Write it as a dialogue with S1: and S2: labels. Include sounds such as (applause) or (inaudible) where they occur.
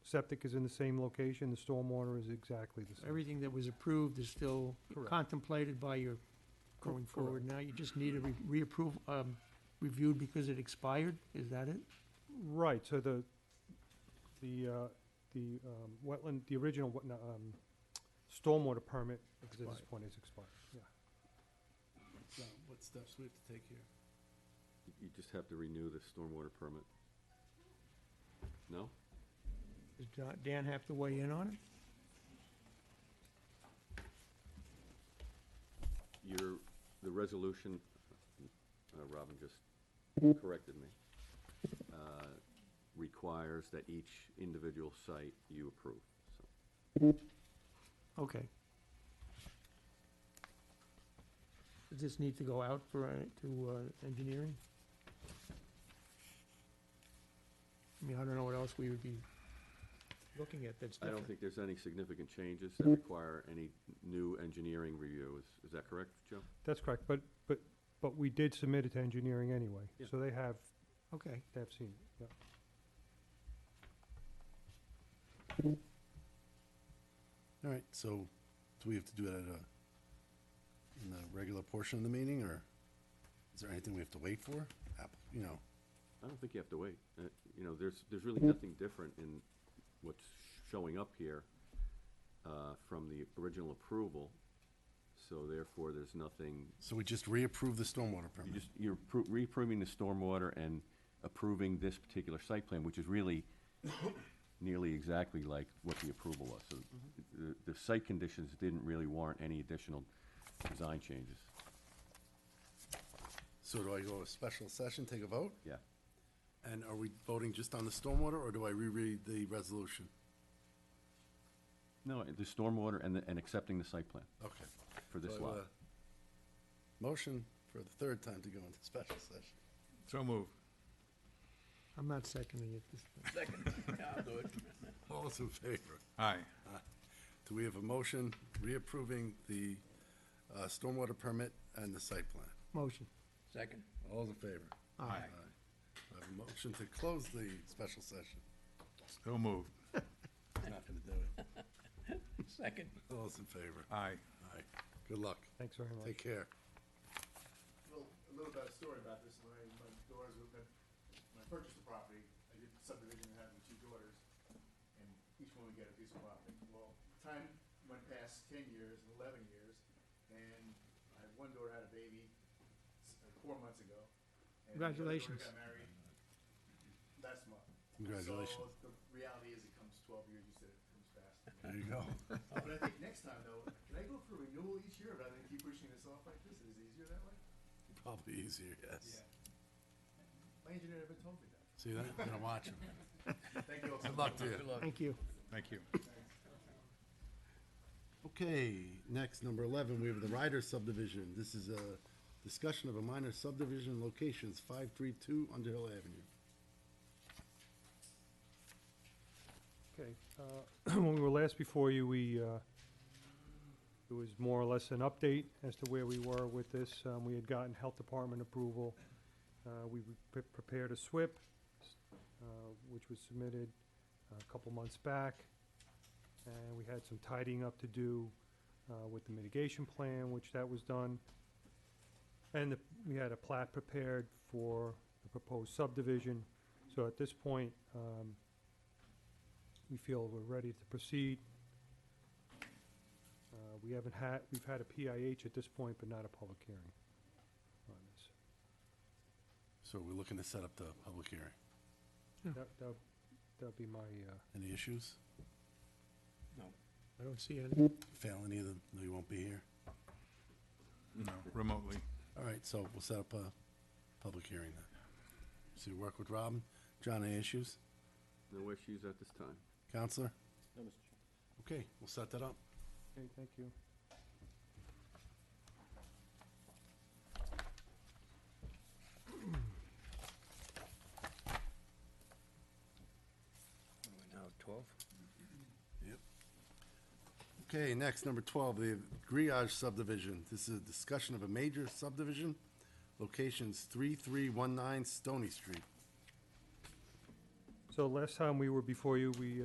S1: septic is in the same location, the stormwater is exactly the same.
S2: Everything that was approved is still
S1: Correct.
S2: contemplated by your going
S1: Correct.
S2: forward now. You just need a re- reapprove, um, reviewed because it expired? Is that it?
S1: Right, so the, the, uh, the um, wetland, the original wet- no, um, stormwater permit at this
S2: Expired.
S1: point is expired, yeah.
S3: So what steps we have to take here?
S4: You just have to renew the stormwater permit. No?
S2: Does Da- Dan have to weigh in on it?
S4: Your, the resolution, uh, Robin just corrected me, uh, requires that each individual site you approve, so.
S2: Okay. Does this need to go out for, uh, to uh, engineering? I mean, I don't know what else we would be looking at that's
S4: I don't
S2: different.
S4: think there's any significant changes that require any new engineering review. Is, is that correct, Joe?
S1: That's correct, but, but, but we did submit it to engineering anyway,
S4: Yeah.
S1: so they have,
S2: Okay,
S1: they have seen it, yeah.
S3: All right, so do we have to do it at a, in the regular portion of the meeting, or is there anything we have to wait for? App- You know,
S4: I don't think you have to wait. Uh, You know, there's, there's really nothing different in what's showing up here uh, from the original approval, so therefore, there's nothing,
S3: so we just reapprove the stormwater
S4: you
S3: permit?
S4: just, you're appro- reapproving the stormwater and approving this particular site plan, which is really nearly exactly like what the approval was. So the, the site conditions didn't really warrant any additional design changes.
S3: So do I go to a special session, take a vote?
S4: Yeah.
S3: And are we voting just on the stormwater, or do I reread the resolution?
S4: No, the stormwater and, the- and accepting the site plan
S3: Okay.
S4: for this
S3: So, uh,
S4: lot.
S3: Motion for the third time to go into special session.
S4: (laughs)
S5: So move.
S2: I'm not seconding it this time.
S3: All those in favor?
S5: Aye.
S3: Do we have a motion reapproving the uh, stormwater permit and the site plan?
S2: Motion.
S6: Second.
S3: All's in favor?
S2: Aye.
S3: I have a motion to close the special session.
S5: So moved.
S3: Not gonna do it.
S6: Second.
S3: All those in favor?
S5: Aye.
S3: Aye. Good luck.
S1: Thanks very much.
S3: Take care.
S7: little, a little bit of story about this, when I, my daughters, were- when I purchased the property, I did subdivision and having two daughters, and each one would get a piece of property. Well, time went past ten years, and eleven years, and I, one daughter had a baby s- uh, four months ago. and the other daughter
S2: Congratulations.
S7: Got married last month.
S3: Congratulations.
S7: So the reality is it comes twelve years, you said it comes fast.
S3: There you go. (laughs)
S7: But I think next time though, can I go for renewal each year rather than keep pushing this off like this? Is it easier that way?
S3: Probably easier, yes.
S7: My engineer never told me that.
S3: See that? Gonna watch him.
S7: Thank you all so
S3: Good luck to you.
S2: Thank you.
S5: Thank you.
S3: Okay, next, number eleven, we have the Ryder subdivision. This is a discussion of a minor subdivision locations, five-three-two Underhill Avenue.
S1: Okay, uh, (clears throat) when we were last before you, we, uh, it was more or less an update as to where we were with this. Um, We had gotten Health Department approval. Uh, We pre- prepared a SWIP, s- uh, which was submitted a couple months back. And we had some tidying up to do uh, with the mitigation plan, which that was done. And the- we had a plat prepared for the proposed subdivision. So at this point, um, we feel we're ready to proceed. Uh, We haven't had, we've had a PIH at this point, but not a public hearing on this.
S3: So we're looking to set up the public hearing.
S1: That, that, that'd be my, uh,
S3: Any issues?
S2: I don't see any.
S3: Fail any of them? No, you won't be here?
S5: No, remotely.
S3: All right, so we'll set up a public hearing then. So you work with Robin. John, any issues?
S4: No issues at this time.
S3: Counselor?
S6: No, Mr. Chairman.
S3: Okay, we'll set that up.
S1: okay, thank you.
S6: Now, twelve?
S3: Okay, next, number twelve, the Griage subdivision. This is a discussion of a major subdivision, locations three-three-one-nine Stony Street.
S1: So last time we uh, were before you, we